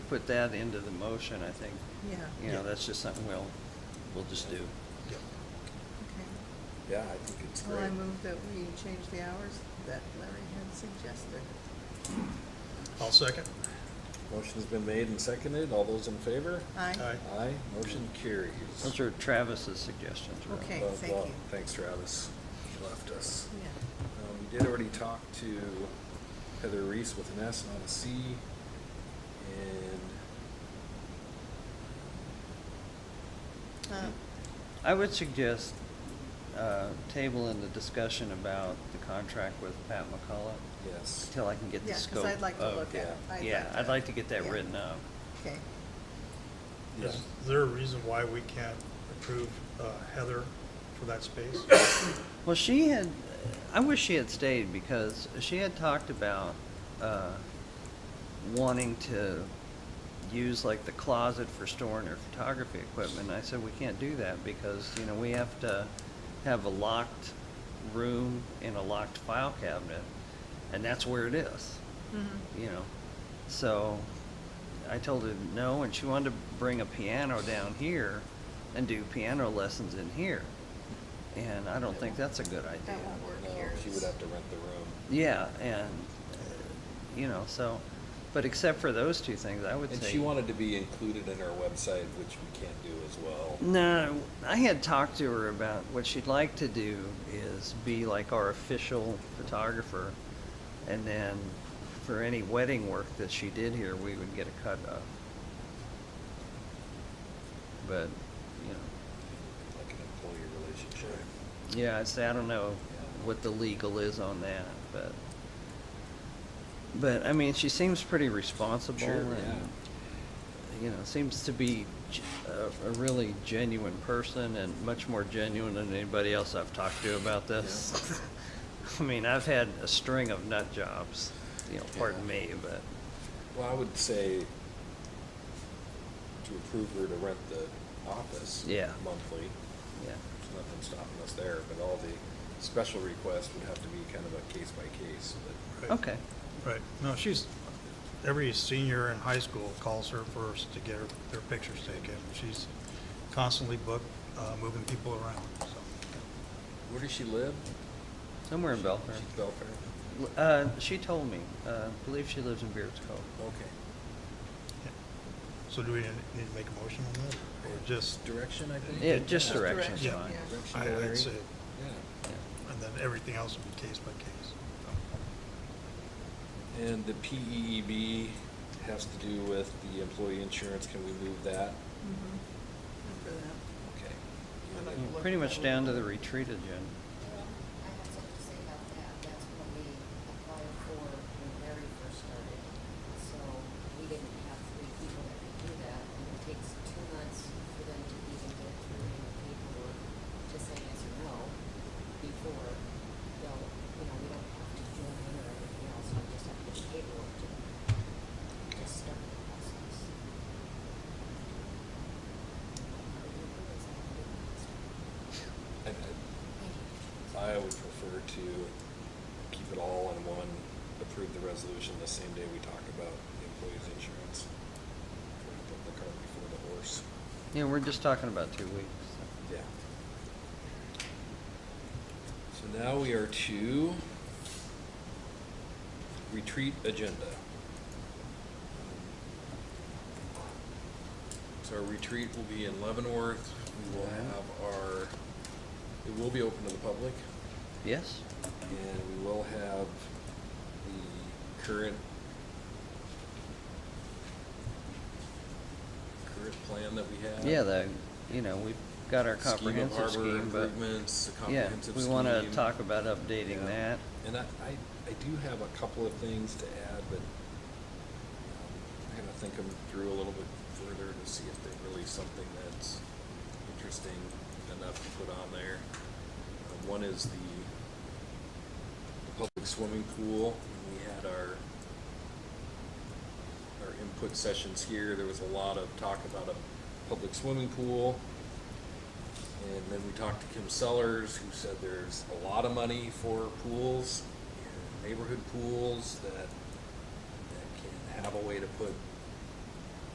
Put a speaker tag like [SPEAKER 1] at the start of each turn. [SPEAKER 1] put that into the motion, I think,
[SPEAKER 2] Yeah,
[SPEAKER 1] you know,
[SPEAKER 3] Yeah.
[SPEAKER 1] that's just something we'll, we'll just do.
[SPEAKER 3] Yep.
[SPEAKER 2] okay.
[SPEAKER 4] Yeah, I think it's
[SPEAKER 2] Well,
[SPEAKER 4] great.
[SPEAKER 2] I move that we change the hours that Larry had suggested.
[SPEAKER 3] I'll second.
[SPEAKER 4] Motion's been made and seconded. All those in favor?
[SPEAKER 2] Aye?
[SPEAKER 3] Aye.
[SPEAKER 4] Aye, motion carries.
[SPEAKER 1] Those are Travis's suggestions. Rob.
[SPEAKER 2] Okay.
[SPEAKER 4] Well,
[SPEAKER 2] thank
[SPEAKER 4] well,
[SPEAKER 2] you.
[SPEAKER 4] Thanks, Travis. You left us.
[SPEAKER 2] Yeah.
[SPEAKER 4] Um, We did already talk to Heather Reese with an S, not a C, and
[SPEAKER 2] Uh,
[SPEAKER 1] I would suggest uh, table in the discussion about the contract with Pat McCullough
[SPEAKER 4] yes.
[SPEAKER 1] until I can get the
[SPEAKER 2] Yeah, 'cause
[SPEAKER 1] scope.
[SPEAKER 2] I'd like to
[SPEAKER 1] of-
[SPEAKER 2] look
[SPEAKER 4] at it.
[SPEAKER 2] I'd
[SPEAKER 1] Yeah,
[SPEAKER 2] like to-
[SPEAKER 1] I'd like to get that
[SPEAKER 2] yeah.
[SPEAKER 1] written up.
[SPEAKER 2] Okay,
[SPEAKER 4] Yeah.
[SPEAKER 3] Is there a reason why we can't approve uh, Heather for that space?
[SPEAKER 1] Well, she had, I wish she had stayed because she had talked about uh, wanting to use like the closet for storing her photography equipment. And I said, we can't do that because, you know, we have to have a locked room and a locked file cabinet. And that's where it is,
[SPEAKER 2] mhm,
[SPEAKER 1] you know. So I told her no, and she wanted to bring a piano down here and do piano lessons in here. And I don't think that's a good idea.
[SPEAKER 2] that won't work
[SPEAKER 4] No,
[SPEAKER 2] here.
[SPEAKER 4] she would have to rent the room.
[SPEAKER 1] Yeah, and, uh, you know, so, but except for those two things, I would say.
[SPEAKER 4] And she wanted to be included in our website, which we can't do as well.
[SPEAKER 1] No, I had talked to her about what she'd like to do is be like our official photographer. And then for any wedding work that she did here, we would get a cut of. But, you know,
[SPEAKER 4] Like an employee relationship.
[SPEAKER 1] yeah, I say, I don't know what the legal is on that, but. But, I mean, she seems pretty responsible
[SPEAKER 4] Sure,
[SPEAKER 1] and, you know, seems to be g- a, a really genuine person and much more genuine than anybody else I've talked to about this. I mean, I've had a string of nut jobs, you know, pardon
[SPEAKER 4] Yeah.
[SPEAKER 1] me, but,
[SPEAKER 4] Well, I would say to approve her to rent the office.
[SPEAKER 1] Yeah.
[SPEAKER 4] Monthly.
[SPEAKER 1] yeah.
[SPEAKER 4] There's nothing stopping us there, but all the special requests would have to be kind of a case by case, but.
[SPEAKER 3] Right.
[SPEAKER 1] Okay,
[SPEAKER 3] Right, no, she's, every senior in high school calls her first to get her, their pictures taken. She's constantly booked, uh, moving people around, so.
[SPEAKER 4] Where does she live?
[SPEAKER 1] somewhere in Belfair.
[SPEAKER 4] She's Belfair.
[SPEAKER 1] L- Uh, she told me, uh, I believe she lives in Beards Cove.
[SPEAKER 4] Okay.
[SPEAKER 3] yeah. So do we need to make a motion on that, or just,
[SPEAKER 4] Direction, I think?
[SPEAKER 1] Yeah, just
[SPEAKER 2] Just
[SPEAKER 1] direction's
[SPEAKER 2] direction,
[SPEAKER 1] fine.
[SPEAKER 2] yeah.
[SPEAKER 4] Direction,
[SPEAKER 3] I- I'd
[SPEAKER 4] Larry?
[SPEAKER 3] say-
[SPEAKER 4] Yeah.
[SPEAKER 3] and then everything else will be case by case?
[SPEAKER 4] And the PEEB has to do with the employee insurance, can we move that?
[SPEAKER 2] mhm, good for that.
[SPEAKER 4] Okay.
[SPEAKER 2] I'd like
[SPEAKER 1] Yeah, Pretty much down to the retreat agenda.
[SPEAKER 5] Well, I have something to say about that. That's what we applied for when Larry first started. So we didn't have three people that could do that. And it takes two months for them to even get through any paperwork to say yes or no before they'll, you know, we don't have to join in or anything else. We just have to get the paperwork to just start the process.
[SPEAKER 4] And I- I would prefer to keep it all in one, approve the resolution the same day we talk about the employee's insurance. Before we Put the cart before the horse.
[SPEAKER 1] Yeah, we're just talking about two weeks.
[SPEAKER 4] Yeah. So now we are to retreat agenda. So our retreat will be in Leavenworth. We will have our, it will be open to the public.
[SPEAKER 1] Yes?
[SPEAKER 4] And we will have the current, current plan that we have.
[SPEAKER 1] Yeah, the, you know, we've got our
[SPEAKER 4] Scheme of
[SPEAKER 1] comprehensive
[SPEAKER 4] harbor
[SPEAKER 1] scheme, but.
[SPEAKER 4] improvements, the comprehensive
[SPEAKER 1] Yeah, we wanna
[SPEAKER 4] scheme.
[SPEAKER 1] talk about updating
[SPEAKER 4] Yeah.
[SPEAKER 1] that.
[SPEAKER 4] And I, I, I do have a couple of things to add, but um, I'm gonna think them through a little bit further to see if they're really something that's interesting enough to put on there. Uh, One is the, the public swimming pool. When We had our, our input sessions here, there was a lot of talk about a public swimming pool. And then we talked to Kim Sellers, who said there's a lot of money for pools, neighborhood pools that, that can have a way to put